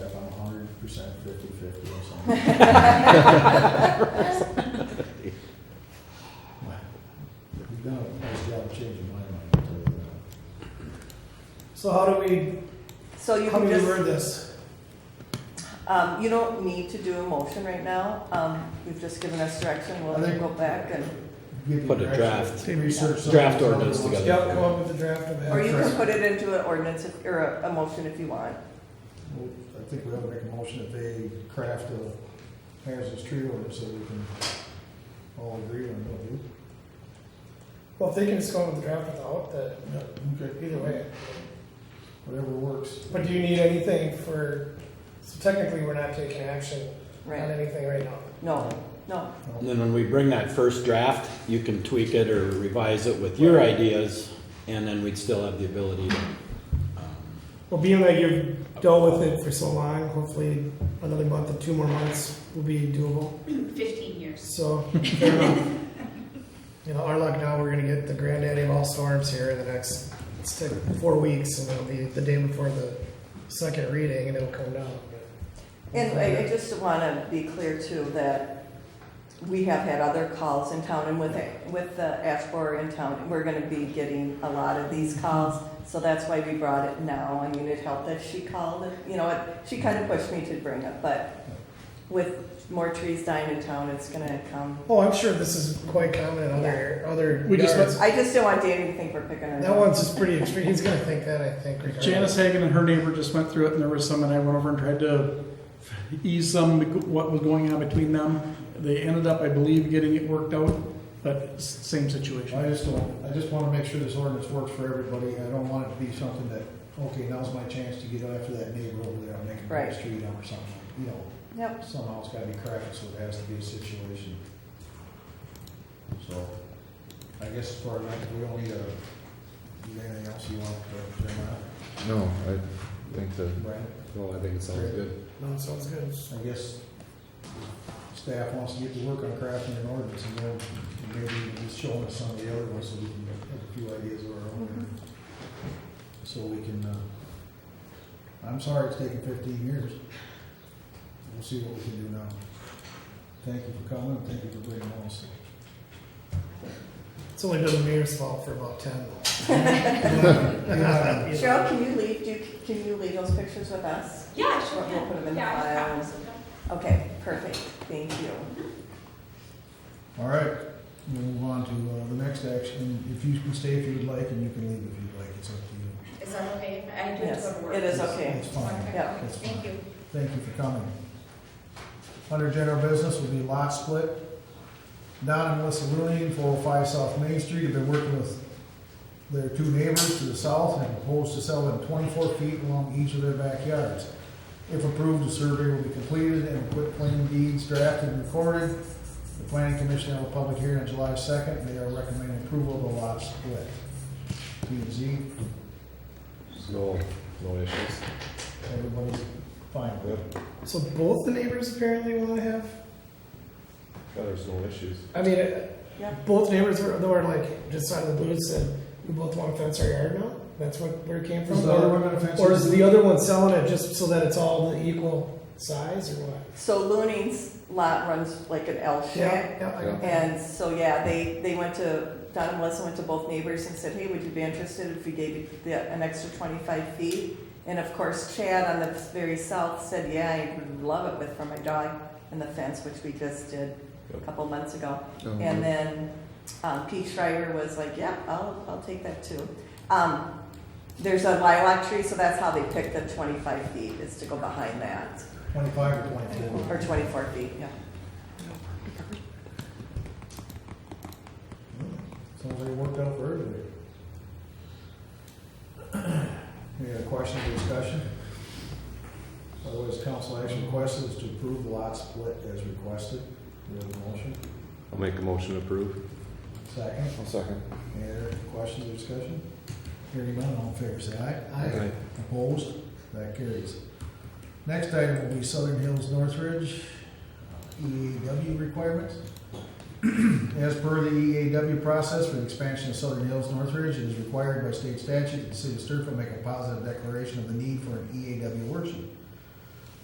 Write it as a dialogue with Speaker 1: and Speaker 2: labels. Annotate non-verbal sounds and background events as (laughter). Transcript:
Speaker 1: fifty-fifty or something. You've done a nice job changing my mind, I'll tell you that.
Speaker 2: So how do we,
Speaker 3: So you
Speaker 2: how do
Speaker 3: can
Speaker 2: we
Speaker 3: just,
Speaker 2: word this?
Speaker 3: um, you don't need to do a motion right now. Um, you've just given us direction. We'll
Speaker 2: I think-
Speaker 3: go back and,
Speaker 2: Give you
Speaker 4: Put a
Speaker 2: direction.
Speaker 4: draft-
Speaker 2: Research. something
Speaker 4: draft
Speaker 2: someone
Speaker 4: ordinance
Speaker 2: wants.
Speaker 4: together.
Speaker 2: Yep, come up with a draft of that.
Speaker 3: or you can
Speaker 2: first.
Speaker 3: put it into an ordinance if- or a, a motion if you want.
Speaker 1: Well,
Speaker 2: I think we ought to make a motion that they craft a hazardous tree ordinance so we can all agree on what we.
Speaker 5: Well, if they can just go with the draft without that,
Speaker 2: Okay,
Speaker 5: either way.
Speaker 2: Whatever works.
Speaker 5: But do you need anything for, so technically, we're not taking action on
Speaker 3: Right?
Speaker 5: anything right now.
Speaker 3: No, no.
Speaker 4: And then when we bring that first draft, you can tweak it or revise it with your ideas, and then we'd still have the ability to. um,
Speaker 5: Well, being that you've dealt with it for so long, hopefully another month or two more months will be doable.
Speaker 6: 15 years.
Speaker 5: So, fair enough. (laughs) You know, our luck now, we're gonna get the granddaddy of all storms here in the next, it's take four weeks, and it'll be the day before the second reading, and it'll come down.
Speaker 3: And I, I just want to be clear too that we have had other calls in town and with, with the Ashbor in town, we're going to be getting a lot of these calls. So that's why we brought it now. I mean, it helped that she called, it. you know, it- she kind of pushed me to bring it, but with more trees dying in town, it's going to come.
Speaker 5: Oh, I'm sure this is quite common in other, other.
Speaker 2: We just-
Speaker 5: yards.
Speaker 3: I just don't want Danny to think we're picking on
Speaker 5: That one's just pretty extreme. He's gonna think that, I think. regardless.
Speaker 7: Janice Hagan and her neighbor just went through it, and there was some, and I went over and tried to ease some, what was going on between them. They ended up, I believe, getting it worked out, but s- same
Speaker 2: I
Speaker 7: situation.
Speaker 2: just don't, I just want to make sure this ordinance works for everybody. I don't want it to be something that, okay, now's my chance to get after that neighbor over there, and make a
Speaker 3: Right.
Speaker 2: big street out or something. like- You know,
Speaker 3: Yep.
Speaker 2: somehow it's gotta be crafted, so it has to be a situation. So, I guess as far as I, we don't need a, you got anything else you want to, turn out,
Speaker 1: No, I think that,
Speaker 2: Brian?
Speaker 4: Well, I think it sounds good.
Speaker 5: No, sounds good.
Speaker 2: I guess staff wants to get to work on crafting an ordinance, and then maybe just showing us some of the other ones, so we can have a few ideas of our own. So we can, uh, I'm sorry it's taken fifteen years. We'll see what we can do now. Thank you for coming, thank you for bringing us.
Speaker 5: It's only been the mayor's fault for about
Speaker 7: (laughs)
Speaker 5: ten.
Speaker 3: Cheryl, can you leave, do, you- can you leave those pictures with us?
Speaker 6: Yeah, sure.
Speaker 3: We'll
Speaker 6: can.
Speaker 3: put 'em in the
Speaker 6: Yeah, I have
Speaker 3: file.
Speaker 6: copies of them.
Speaker 3: Okay, perfect, thank you.
Speaker 2: All right, we'll move on to, uh, the next action. If you can stay if you would like, and you can leave if you'd like, it's up to you.
Speaker 6: Is that okay? I do have
Speaker 3: Yes,
Speaker 6: to go to work.
Speaker 3: it is okay.
Speaker 2: It's fine.
Speaker 3: Yeah.
Speaker 6: Okay, thank you.
Speaker 2: Thank you for coming. Under general business will be lot split. Don and Melissa Rooney, four oh five South Main Street, have been working with their two neighbors to the south and propose to sell them twenty-four feet along each of their backyards. If approved, the survey will be completed and quit claim deeds drafted and recorded. The planning commission held a public hearing on July second, they are recommending approval of the lot split. P and Z,
Speaker 4: No, no issues.
Speaker 2: everybody's fine with it.
Speaker 5: So both the neighbors apparently want to have.
Speaker 4: There's no issues.
Speaker 5: I mean, uh,
Speaker 3: Yeah.
Speaker 5: both neighbors were, they were like just out of the blue said, "We both want to fence our yard now." That's what where it came from.
Speaker 2: Is the other one offensive?
Speaker 5: or is the other one selling it just so that it's all the equal size or what?
Speaker 3: So Looning's lot runs like an L shape.
Speaker 5: yeah. I-
Speaker 3: And so, yeah, they, they went to, Don and Melissa went to both neighbors and said, hey, would you be interested if we gave you the, an extra twenty-five feet? And of course, Chad on the very south said, yeah, I would love it with, for my dog and the fence, which we just did a
Speaker 4: Yep.
Speaker 3: couple months ago. And then um, Pete Schreiber was like, yeah, I'll, I'll take that too. Um, There's a lilac tree, so that's how they picked the 25 feet, is to go behind that,
Speaker 2: Twenty-five or twenty-four?
Speaker 3: or 24 feet, yeah.
Speaker 2: Sounds like it worked out for everybody. (clears throat) Any other questions or discussion? Otherwise, council action requested is to approve the lot split as requested. Do we have a motion?
Speaker 4: I'll make a motion to approve.
Speaker 2: Second,
Speaker 4: I'll second.
Speaker 2: any other questions or discussion? Hearing none, all in favor, say aye. Opposed? That carries. Next item will be Southern Hills Northridge EAW requirements. As per the EAW process for the expansion of Southern Hills Northridge, it is required by state statute that the city of Sturfield make E a positive declaration of the need for an EAW workshop.